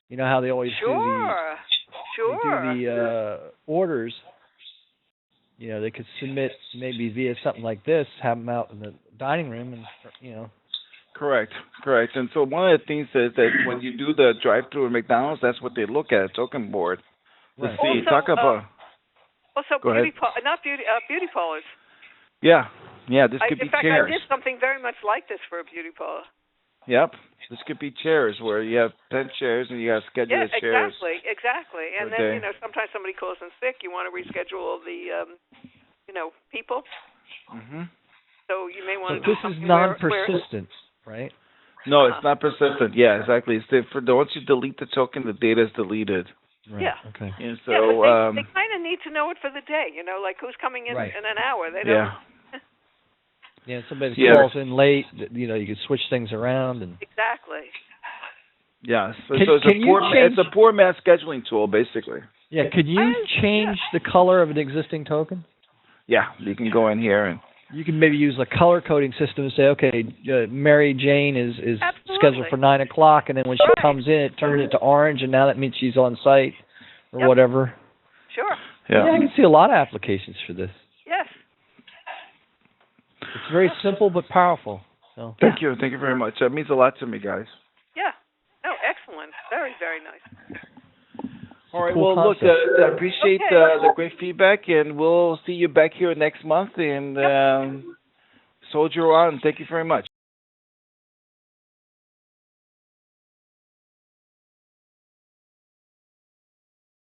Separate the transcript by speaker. Speaker 1: You know how they always
Speaker 2: Sure.
Speaker 1: do the
Speaker 2: Sure.
Speaker 1: they do the uh, orders. You know, they could submit maybe via something like this, have them out in the dining room, and you know,
Speaker 3: Correct, correct. And so one of the things is that when you do the drive-through at McDonald's, that's what they look at, a token board. To
Speaker 1: Right.
Speaker 3: see,
Speaker 2: Also,
Speaker 3: talk
Speaker 2: uh,
Speaker 3: about,
Speaker 2: also,
Speaker 3: Go ahead.
Speaker 2: beauty pa- not beauty, uh, beauty parlors.
Speaker 3: yeah, yeah, this
Speaker 2: I,
Speaker 3: could
Speaker 2: in
Speaker 3: be
Speaker 2: fact,
Speaker 3: chairs.
Speaker 2: I did something very much like this for a beauty parlor.
Speaker 3: Yep, this could be chairs where you have 10 chairs and you got to schedule
Speaker 2: yeah,
Speaker 3: the chairs.
Speaker 2: exactly, exactly. And
Speaker 3: per
Speaker 2: then
Speaker 3: day.
Speaker 2: you know, sometimes somebody calls in sick. You want to reschedule the, um, you know, people.
Speaker 3: hmm
Speaker 2: So you may
Speaker 1: but
Speaker 2: want to. do
Speaker 1: this is
Speaker 2: something where- where-
Speaker 1: non-persistent, right?
Speaker 3: No, it's not persistent. Yeah, exactly. It's the, for the, once you delete the token, the data is deleted.
Speaker 1: Right.
Speaker 2: Yeah.
Speaker 1: Okay.
Speaker 3: And so,
Speaker 2: yeah, but they,
Speaker 3: um,
Speaker 2: they kind of need to know it for the day. You know, like who's coming in
Speaker 1: Right.
Speaker 2: in an hour. They don't.
Speaker 3: yeah,
Speaker 1: Yeah. Somebody
Speaker 3: Yeah.
Speaker 1: calls in late. th- You know, you could switch things around, and
Speaker 2: Exactly.
Speaker 3: yeah. So,
Speaker 1: Can-
Speaker 3: so it's
Speaker 1: can
Speaker 3: a
Speaker 1: you
Speaker 3: poor, ma-
Speaker 1: change-
Speaker 3: it's a poor mass scheduling tool, basically.
Speaker 1: yeah, could you
Speaker 2: I-
Speaker 1: change the color of an existing token?
Speaker 3: Yeah, you can go in here and
Speaker 1: you can maybe use a color coding system and say, okay, uh, Mary Jane is is
Speaker 2: Absolutely.
Speaker 1: scheduled for nine o'clock, and then when she
Speaker 2: Right.
Speaker 1: comes in, it turns it to orange, and now that means she's on site or
Speaker 2: Yep.
Speaker 1: whatever.
Speaker 2: Sure.
Speaker 1: I can see a lot of applications for this.
Speaker 2: Yes.
Speaker 1: It's very simple but powerful. So
Speaker 3: Thank you. Thank you very much. That means a lot to me, guys.
Speaker 2: Yeah. No, excellent. Very, very nice.
Speaker 3: All right.
Speaker 1: cool
Speaker 3: well, look,
Speaker 1: concept.
Speaker 3: uh, I appreciate
Speaker 2: Okay.
Speaker 3: uh, the great feedback, and we'll see you back here next month. And
Speaker 2: Yep.
Speaker 3: um, soldier on. Thank you very much.